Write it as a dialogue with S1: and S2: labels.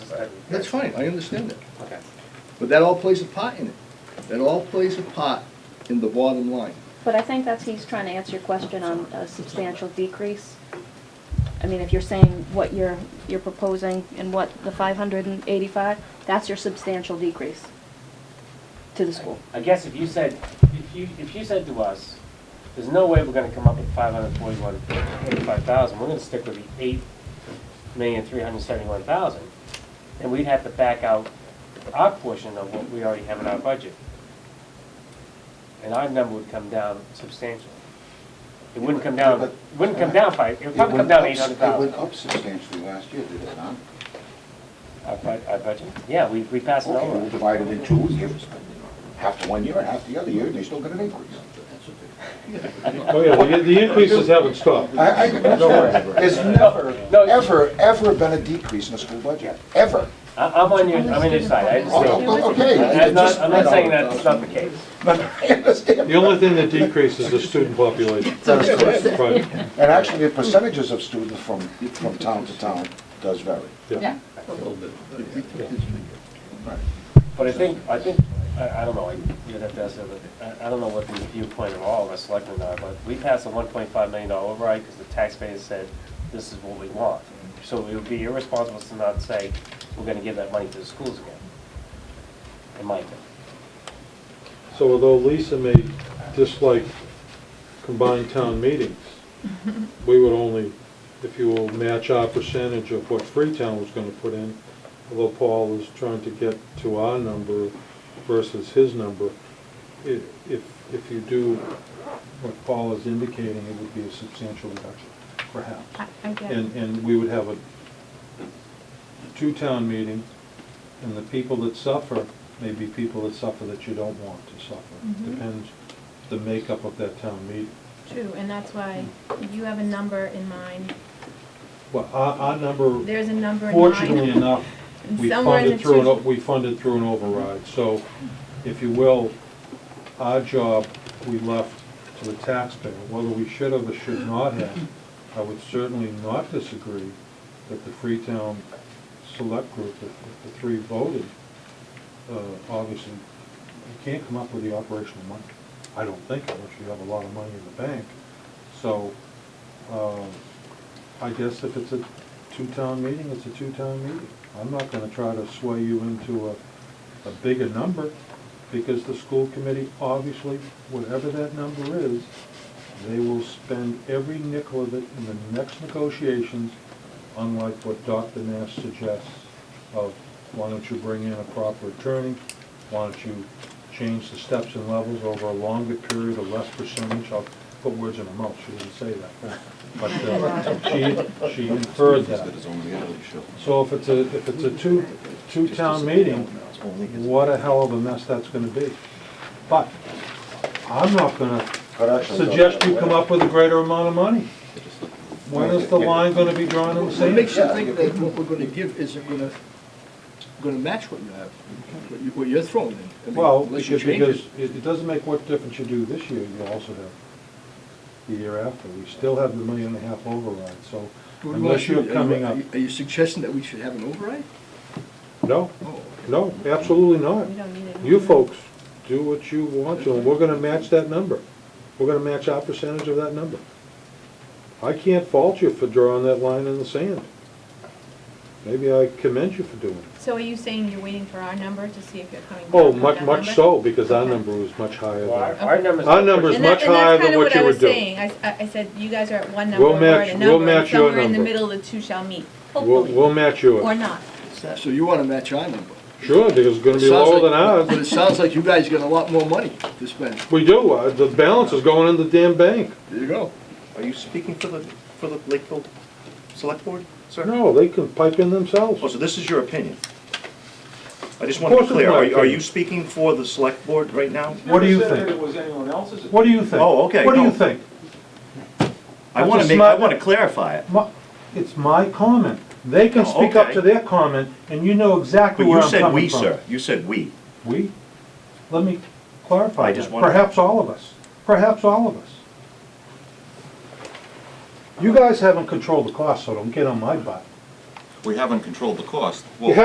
S1: ahead.
S2: That's fine, I understand that.
S1: Okay.
S2: But that all plays a part in it. That all plays a part in the bottom line.
S3: But I think that's, he's trying to answer your question on a substantial decrease. I mean, if you're saying what you're, you're proposing and what the five hundred and eighty-five, that's your substantial decrease to the school.
S1: I guess if you said, if you, if you said to us, there's no way we're gonna come up with five hundred forty-one, eighty-five thousand, we're gonna stick with the eight million, three hundred seventy-one thousand, and we'd have to back out our portion of what we already have in our budget. And our number would come down substantially. It wouldn't come down,
S4: Yeah,
S1: it
S4: but-
S1: wouldn't come down five, it would probably come
S4: went
S1: down
S4: up-
S1: eight hundred
S4: It
S1: thousand.
S4: went up substantially last year, did it not?
S1: Our bu- our budget, yeah, we, we passed it
S4: Okay, we
S1: over.
S4: divided in two years, half the one year and half the other year, and they still got an increase.
S5: Oh, yeah, the, the increases haven't stopped.
S4: I, I, there's never,
S1: No, it's-
S4: ever, ever been a decrease in the school budget, ever.
S1: I, I'm on your, I'm on your side, I understand.
S4: Oh, okay.
S1: I'm not, I'm not
S4: Just-
S1: saying that's not the case.
S4: But I understand.
S5: The only thing that decreases is the student population.
S4: That's correct.
S5: Right,
S4: And actually, the percentages of students from, from town to town does vary.
S5: yeah.
S1: But I think, I think, I, I don't know, I- you'd have to ask, them, but I, I don't know what the viewpoint of all of us selectmen are, but we passed a one point five million dollar override because the taxpayers said, this is what we want. So it would be irresponsible to not say, we're gonna give that money to the schools again, in my opinion.
S5: So although Lisa may dislike combined town meetings, we would only, if you will, match our percentage of what Freetown was gonna put in, although Paul is trying to get to our number versus his number. i- If, if you do what Paul is indicating, it would be a substantial reduction, perhaps.
S6: I, I get it.
S5: And, and we would have a two-town meeting, and the people that suffer may be people that suffer that you don't want to suffer.
S6: Mhm.
S5: Depends the makeup of that town meeting.
S6: True, and that's why you have a number in mind.
S5: Well, our, our number,
S6: There's a number in mind.
S5: fortunately enough,
S6: And
S5: we
S6: somewhere in
S5: funded
S6: the
S5: through, an o-
S6: two-
S5: we funded through an override. So, if you will, our job, we left to the taxpayer. Whether we should have or should not have, I would certainly not disagree that the Freetown Select Group, if if the three voted, uh, obviously, you can't come up with the operational money. I don't think, unless you have a lot of money in the bank. So, um, I guess if it's a two-town meeting, it's a two-town meeting. I'm not gonna try to sway you into a, a bigger number, because the school committee, obviously, whatever that number is, they will spend every nickel of it in the next negotiations, unlike what Dr. Nash suggests of, why don't you bring in a proper attorney? Why don't you change the steps and levels over a longer period, a less percentage? I'll put words in her mouth, she didn't say that. But uh, she, she inferred that. So if it's a, if it's a two, two-town meeting, what a hell of a mess that's gonna be. But I'm not gonna
S4: But actually,
S5: suggest you come up with a greater amount of money. When is the line gonna be drawn in the
S2: What
S5: sand?
S2: makes you think that what we're gonna give isn't gonna, gonna match what you have, what you- what you're throwing in? I mean,
S5: Well,
S2: unless you
S5: because
S2: change it.
S5: it, it doesn't make what difference you do this year, you also have the year after. We still have the million and a half override, so
S2: What do you wanna
S5: unless you're
S2: do? Are you-
S5: coming up,
S2: are you- Are you suggesting that we should have an override?
S5: no,
S2: Oh.
S5: no, absolutely not.
S6: We don't need it.
S5: You folks, do what you want to, and we're gonna match that number. We're gonna match our percentage of that number. I can't fault you for drawing that line in the sand. Maybe I commend you for doing it.
S6: So are you saying you're waiting for our number to see if you're coming back
S5: Oh,
S6: with
S5: much,
S6: that
S5: much
S6: number?
S5: so, because our
S6: Okay.
S5: number was much higher
S1: Well, our,
S5: than.
S1: our numbers.
S5: Our numbers-
S6: And
S5: much
S6: that- and that's
S5: higher than
S6: kinda
S5: what you
S6: I was
S5: would do.
S6: saying. I, s- I- I said, you guys are at one number,
S5: We'll
S6: we're at
S5: match-
S6: a
S5: we'll
S6: number, and
S5: match your
S6: somewhere in the
S5: number.
S6: middle the two shall meet,
S5: We'll,
S6: hopefully,
S5: we'll match
S6: or
S5: yours.
S6: not.
S2: So you wanna match our number?
S5: Sure, because it's gonna be
S2: Sounds
S5: lower
S2: like-
S5: than
S2: But it
S5: ours.
S2: sounds like you guys got a lot more money to spend.
S5: We do, uh, the balance is going in the damn bank.
S2: There you go.
S7: Are you speaking for the, for the Lakeville Select Board, sir?
S5: No, they can pipe in themselves.
S7: Oh, so this is your opinion? I just want
S5: Of course
S7: to be
S5: it's
S7: clear,
S5: my
S7: are you- are
S5: opinion.
S7: you speaking for the Select Board right now?
S5: What do you think? What do you think?
S7: Oh, okay,
S5: What do
S7: no.
S5: you think?
S7: I
S5: That's
S7: want
S5: a
S7: to make, I
S5: smart-
S7: want to clarify it.
S5: My- It's my comment. They can
S7: Oh,
S5: speak up
S7: okay.
S5: to their comment, and you know exactly
S7: But
S5: where
S7: you
S5: I'm
S7: said
S5: coming
S7: we,
S5: from.
S7: sir, you said we.
S5: We? Let me clarify
S7: I just
S5: that.
S7: wondered.
S5: Perhaps all of us. Perhaps all of us. You guys haven't controlled the cost, so don't get on my butt.
S8: We haven't controlled the cost.
S5: You
S8: Well,